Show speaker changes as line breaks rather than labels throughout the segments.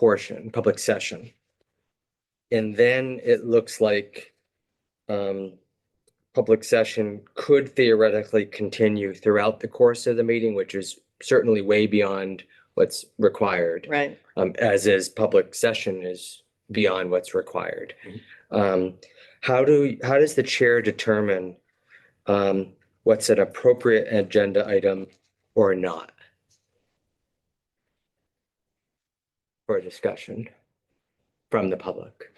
portion, public session. And then it looks like um, public session could theoretically continue throughout the course of the meeting, which is certainly way beyond what's required.
Right.
Um, as is public session is beyond what's required. Um, how do, how does the chair determine um, what's an appropriate agenda item or not? For discussion from the public.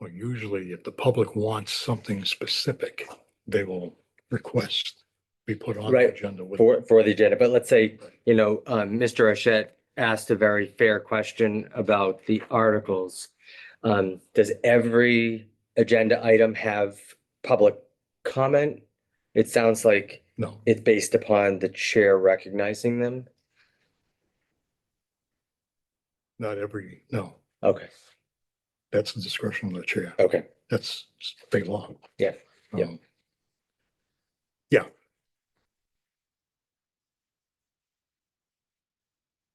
Well, usually if the public wants something specific, they will request be put on the
Right,
agenda with.
for, for the agenda, but let's say, you know, um, Mr. Ashet asked a very fair question about the articles. Um, does every agenda item have public comment? It sounds like
No,
it's based upon the chair recognizing them.
not every, no,
Okay,
that's the discretion of the chair.
okay.
That's state law.
Yeah, yeah.
Um,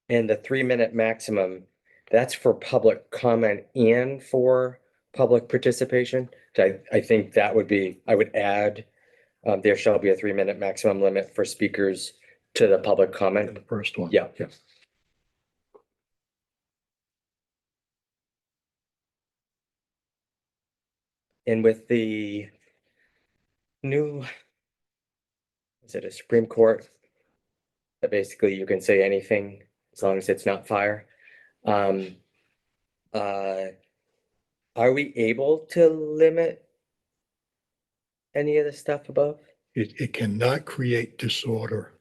And the three minute maximum, that's for public comment and for public participation. So I, I think that would be, I would add, um, there shall be a three minute maximum limit for speakers to the public
and
comment.
The first one.
Yeah.
Yes.
And with the new, is it a Supreme Court? That basically you can say anything as long as it's not fire. Um, uh, are we able to limit any of the stuff above?
It, it cannot create disorder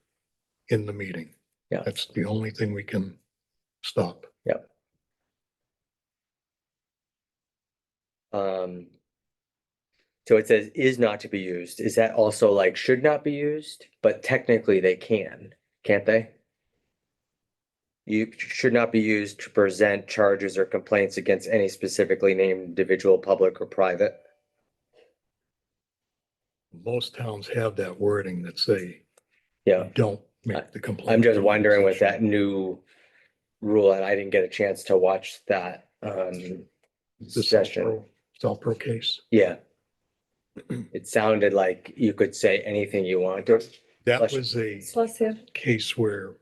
in the meeting.
Yeah.
That's the only thing we can stop.
Um, so it says is not to be used. Is that also like should not be used? But technically they can, can't they? You should not be used to present charges or complaints against any specifically named individual, public or private.
Most towns have that wording that say,
Yeah,
don't make the complaint.
I'm just wondering with that new rule and I didn't get a chance to watch that um
The
session.
Southborough- Southborough case.
Yeah. It sounded like you could say anything you want or
That
Bless you.
was a
Bless you.
case where a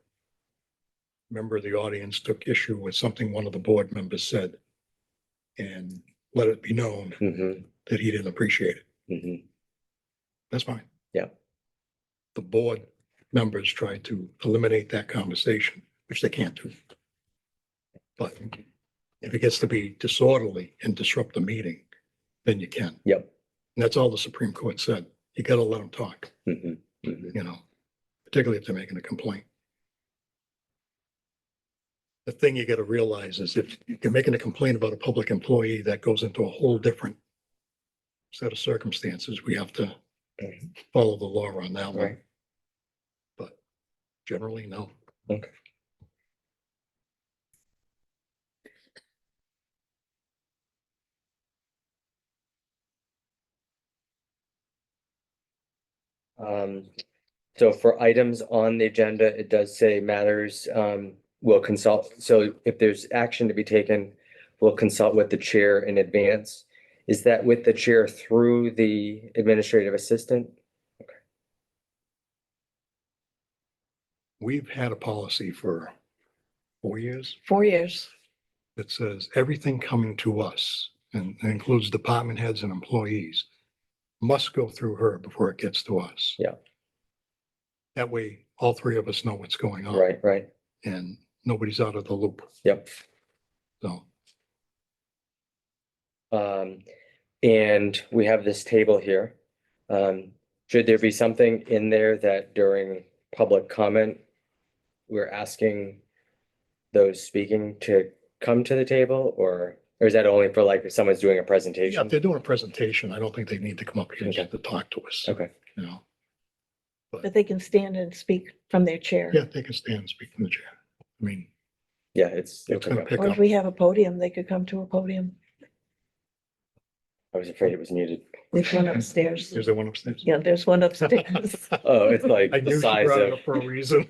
member of the audience took issue with something one of the board members said and let it be known
Mhm,
that he didn't appreciate it.
mhm.
That's fine.
Yeah.
The board members tried to eliminate that conversation, which they can't do. But if it gets to be disorderly and disrupt the meeting, then you can.
Yep.
And that's all the Supreme Court said. You gotta let them talk,
mhm, mhm.
you know, particularly if they're making a complaint. The thing you gotta realize is if you're making a complaint about a public employee, that goes into a whole different set of circumstances. We have to
Mhm.
follow the law on that one.
Right.
But generally, no.
Okay. Um, so for items on the agenda, it does say matters, um, will consult, so if there's action to be taken, we'll consult with the chair in advance. Is that with the chair through the administrative assistant?
We've had a policy for four years
Four years.
that says everything coming to us, and that includes department heads and employees, must go through her before it gets to us.
Yeah.
That way, all three of us know what's going on.
Right, right,
And nobody's out of the loop,
yep.
so.
Um, and we have this table here. Um, should there be something in there that during public comment, we're asking those speaking to come to the table or, or is that only for like if someone's doing a
Yeah, if
presentation?
they're doing a presentation, I don't think they need to come up here and
Okay.
get to talk to us,
Okay,
you know.
But they can stand and speak from their chair.
Yeah, they can stand and speak from the chair. I mean,
yeah, it's,
it's gonna pick
Or
up.
if we have a podium, they could come to a podium.
I was afraid it was muted.
There's one upstairs.
Is there one upstairs?
Yeah, there's one upstairs.
Oh, it's like
I knew
the
she
size
brought it
of,
up for a reason.